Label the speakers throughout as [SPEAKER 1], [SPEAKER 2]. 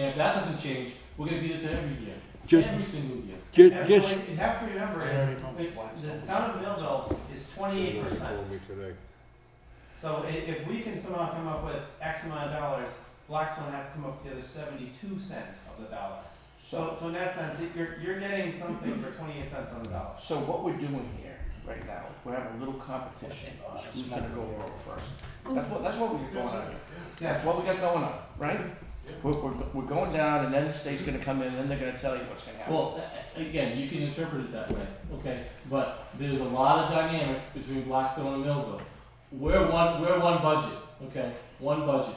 [SPEAKER 1] And if that doesn't change, we're gonna do this every year,
[SPEAKER 2] Just-
[SPEAKER 1] every single year.
[SPEAKER 2] Ju-
[SPEAKER 3] And
[SPEAKER 2] Just,
[SPEAKER 3] what You have to remember is, the the town of Millville is twenty-eight percent.
[SPEAKER 4] Told me today.
[SPEAKER 3] So i- if we can somehow come up with X amount of dollars, Blackstone has to come up with the other seventy-two cents of the dollar. So, so in that sense, it- you're, you're getting something for twenty-eight cents on the dollar.
[SPEAKER 5] So what we're doing here right now is we're having a little competition on who's gonna go over first. That's what, that's what we're going on here.
[SPEAKER 3] Yeah,
[SPEAKER 5] That's what we got going on, right? We're, we're, we're going down and then the state's gonna come in and then they're gonna tell you what's gonna happen.
[SPEAKER 1] Well, a- a- again, you can interpret it that way, okay? But there's a lot of dynamic between Blackstone and Millville. We're one, we're one budget, okay? One budget.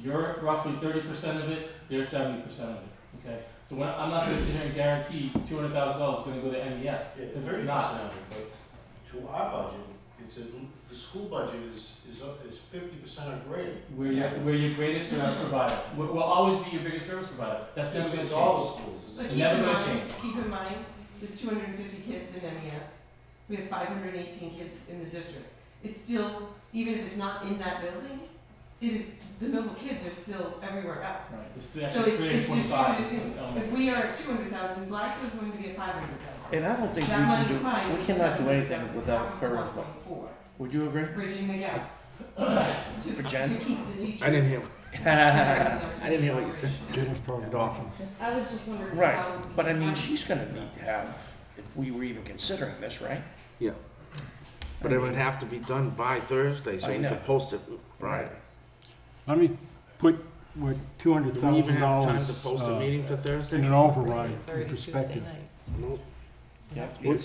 [SPEAKER 1] You're roughly thirty percent of it, they're seventy percent of it, okay? So when, I'm not gonna sit here and guarantee two hundred thousand dollars is gonna go to MES, because it's not.
[SPEAKER 6] To our budget, it's a, the school budget is, is up, is fifty percent or greater.
[SPEAKER 1] We're your, we're your greatest service provider. We're- We'll always be your biggest service provider. That's never gonna
[SPEAKER 6] It's all
[SPEAKER 1] change.
[SPEAKER 6] the schools. It's-
[SPEAKER 7] But
[SPEAKER 1] It's
[SPEAKER 7] keep
[SPEAKER 1] never
[SPEAKER 7] in
[SPEAKER 1] gonna
[SPEAKER 7] mind,
[SPEAKER 1] change.
[SPEAKER 7] keep in mind, there's two hundred and fifty kids in MES. We have five hundred and eighteen kids in the district. It's still, even if it's not in that building, it is, the Millville kids are still everywhere else.
[SPEAKER 1] Right, it's
[SPEAKER 7] So
[SPEAKER 1] actually
[SPEAKER 7] it's,
[SPEAKER 1] three hundred
[SPEAKER 7] it's
[SPEAKER 1] twenty-five.
[SPEAKER 7] distributed. If we are at two hundred thousand, Blackstone's going to be at five hundred thousand.
[SPEAKER 5] And I don't think we
[SPEAKER 7] That money
[SPEAKER 5] can do,
[SPEAKER 7] combined
[SPEAKER 5] we
[SPEAKER 7] is
[SPEAKER 5] cannot do anything
[SPEAKER 7] 700,000,
[SPEAKER 5] without her.
[SPEAKER 7] 1.4,
[SPEAKER 5] Would you agree?
[SPEAKER 7] Bridging the gap. To-
[SPEAKER 5] For Jen?
[SPEAKER 7] To keep the teachers.
[SPEAKER 2] I didn't hear,
[SPEAKER 5] I
[SPEAKER 7] I
[SPEAKER 5] didn't hear what you said.
[SPEAKER 2] didn't
[SPEAKER 4] At
[SPEAKER 2] all.
[SPEAKER 8] I was just wondering.
[SPEAKER 5] Right,
[SPEAKER 8] how-
[SPEAKER 5] but I mean, she's gonna need to have, if we were even considering this, right?
[SPEAKER 2] Yeah.
[SPEAKER 5] I
[SPEAKER 9] But it
[SPEAKER 5] mean-
[SPEAKER 9] would have to be done by Thursday, so
[SPEAKER 5] I
[SPEAKER 9] we
[SPEAKER 5] know.
[SPEAKER 9] could post it Friday.
[SPEAKER 2] Let me put, what, two hundred
[SPEAKER 9] Do we even
[SPEAKER 2] thousand
[SPEAKER 9] have time to
[SPEAKER 2] dollars
[SPEAKER 9] post
[SPEAKER 2] uh,
[SPEAKER 9] a meeting for Thursday?
[SPEAKER 2] in an override in perspective.
[SPEAKER 9] Nope.
[SPEAKER 5] Yeah.
[SPEAKER 9] It's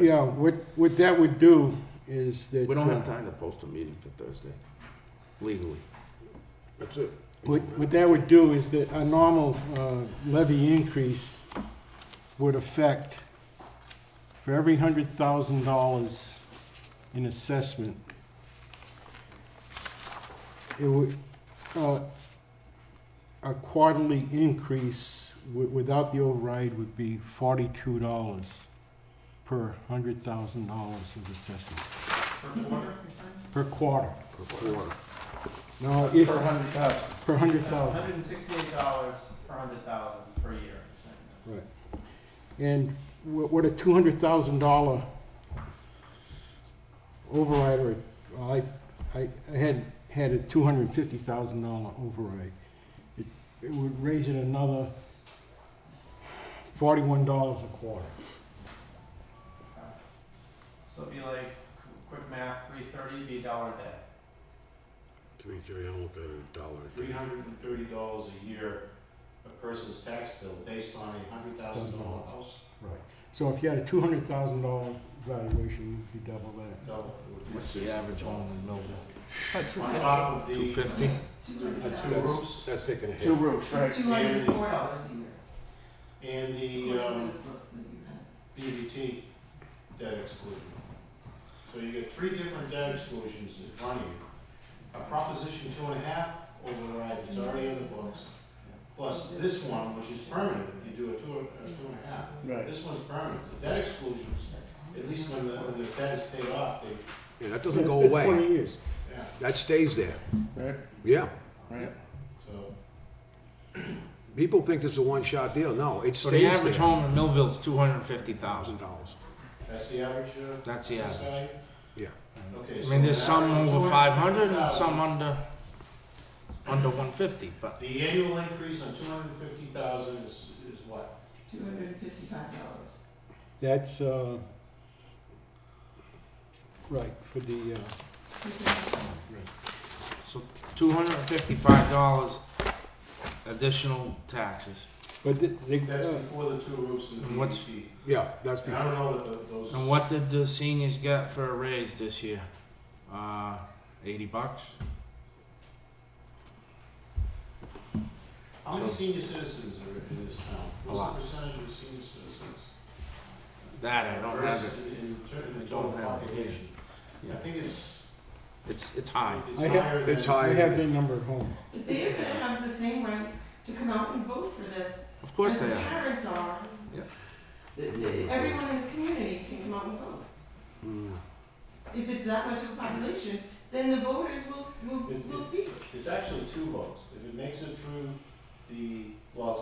[SPEAKER 2] Yeah, what, what that would do is that.
[SPEAKER 9] We don't
[SPEAKER 2] uh,
[SPEAKER 9] have time to post a meeting for Thursday, legally. That's it.
[SPEAKER 2] What, what that would do is that a normal uh, levy increase would affect, for every hundred thousand dollars in assessment, it would, uh, a quarterly increase wi- without the override would be forty-two dollars per hundred thousand dollars of assessment,
[SPEAKER 3] per quarter,
[SPEAKER 2] per quarter.
[SPEAKER 9] Per quarter.
[SPEAKER 2] Now, if,
[SPEAKER 5] Per hundred thousand.
[SPEAKER 2] per hundred thousand.
[SPEAKER 3] hundred and sixty-eight dollars per hundred thousand per year. so.
[SPEAKER 2] Right. And wha- what a two hundred thousand dollar override, or, well, I, I, I had, had a two hundred and fifty thousand dollar override. It, it would raise it another forty-one dollars a quarter.
[SPEAKER 3] So it'd be like, qu- quick math, three thirty, be a dollar a day.
[SPEAKER 4] To me, Jerry, I don't look at a dollar.
[SPEAKER 6] Three hundred and thirty dollars a year, a person's tax bill based on a hundred thousand dollar house,
[SPEAKER 2] Right. So if you had a two hundred thousand dollar valuation, you'd be double that.
[SPEAKER 6] double. it would
[SPEAKER 9] What's the average home in Millville?
[SPEAKER 6] be- On top of
[SPEAKER 9] Two
[SPEAKER 6] the
[SPEAKER 9] fifty?
[SPEAKER 6] two roofs
[SPEAKER 4] That's taking a hit.
[SPEAKER 5] Two roofs, right?
[SPEAKER 7] Two hundred and four dollars a year.
[SPEAKER 6] and the, um,
[SPEAKER 7] That's less than you had.
[SPEAKER 6] DVT debt exclusion. So you get three different debt exclusions in front of you. A proposition two and a half override that's already in the books, plus this one, which is permanent, if you do a two, a two and a half.
[SPEAKER 5] Right.
[SPEAKER 6] This one's permanent. The debt exclusions, at least when the, when the debt is paid off, they,
[SPEAKER 4] Yeah, that doesn't
[SPEAKER 2] That's-
[SPEAKER 4] go
[SPEAKER 2] that's Twenty
[SPEAKER 4] away.
[SPEAKER 2] years.
[SPEAKER 6] yeah,
[SPEAKER 4] That stays there.
[SPEAKER 5] Right,
[SPEAKER 4] Yeah.
[SPEAKER 5] right.
[SPEAKER 6] so.
[SPEAKER 4] People think this is a one-shot deal. No, it
[SPEAKER 9] So the
[SPEAKER 4] stays
[SPEAKER 9] average
[SPEAKER 4] there.
[SPEAKER 9] home in Millville's two hundred and fifty thousand.
[SPEAKER 4] Thousand dollars.
[SPEAKER 6] That's the average, uh?
[SPEAKER 9] That's the
[SPEAKER 6] assessed
[SPEAKER 9] average.
[SPEAKER 6] value?
[SPEAKER 4] Yeah.
[SPEAKER 6] Okay.
[SPEAKER 9] I
[SPEAKER 6] so
[SPEAKER 9] mean, there's
[SPEAKER 6] an
[SPEAKER 9] some
[SPEAKER 6] average of
[SPEAKER 9] over five hundred and
[SPEAKER 6] 250,000.
[SPEAKER 9] some under, under one fifty, but
[SPEAKER 6] The annual increase on two hundred and fifty thousand is, is what?
[SPEAKER 7] Two hundred and fifty-five dollars.
[SPEAKER 2] That's, uh, right, for the, uh,
[SPEAKER 9] So two hundred and fifty-five dollars additional taxes.
[SPEAKER 2] but the, they,
[SPEAKER 6] That's
[SPEAKER 2] uh,
[SPEAKER 6] before the two roofs and the
[SPEAKER 9] And what's-
[SPEAKER 6] DVT.
[SPEAKER 4] Yeah, that's
[SPEAKER 6] And I
[SPEAKER 4] before.
[SPEAKER 6] don't know that tho- those.
[SPEAKER 9] And what did the seniors get for a raise this year? Uh, eighty bucks?
[SPEAKER 6] How many
[SPEAKER 9] so-
[SPEAKER 6] senior citizens are in this town?
[SPEAKER 9] A
[SPEAKER 6] What's
[SPEAKER 9] lot.
[SPEAKER 6] the percentage of senior citizens?
[SPEAKER 9] That I don't have it.
[SPEAKER 6] Versus In, ter- in
[SPEAKER 9] I
[SPEAKER 6] the
[SPEAKER 9] don't
[SPEAKER 6] total
[SPEAKER 9] have it,
[SPEAKER 6] population.
[SPEAKER 9] yeah.
[SPEAKER 6] I think it's,
[SPEAKER 9] It's, it's high.
[SPEAKER 6] it's
[SPEAKER 2] I have-
[SPEAKER 6] higher than.
[SPEAKER 4] It's
[SPEAKER 2] I have
[SPEAKER 4] high.
[SPEAKER 2] their number at home.
[SPEAKER 7] But they are gonna have the same rights to come out and vote for this.
[SPEAKER 9] Of course
[SPEAKER 7] as
[SPEAKER 9] they
[SPEAKER 7] the
[SPEAKER 9] are.
[SPEAKER 7] Parents are.
[SPEAKER 9] Yeah.
[SPEAKER 7] Th- th- Everyone in this community can come out and vote.
[SPEAKER 4] Mm.
[SPEAKER 7] If it's that much of a population, then the voters will, will,
[SPEAKER 6] It-
[SPEAKER 7] will
[SPEAKER 6] it-
[SPEAKER 7] speak.
[SPEAKER 6] It's actually two votes. If it makes it through the, well, it's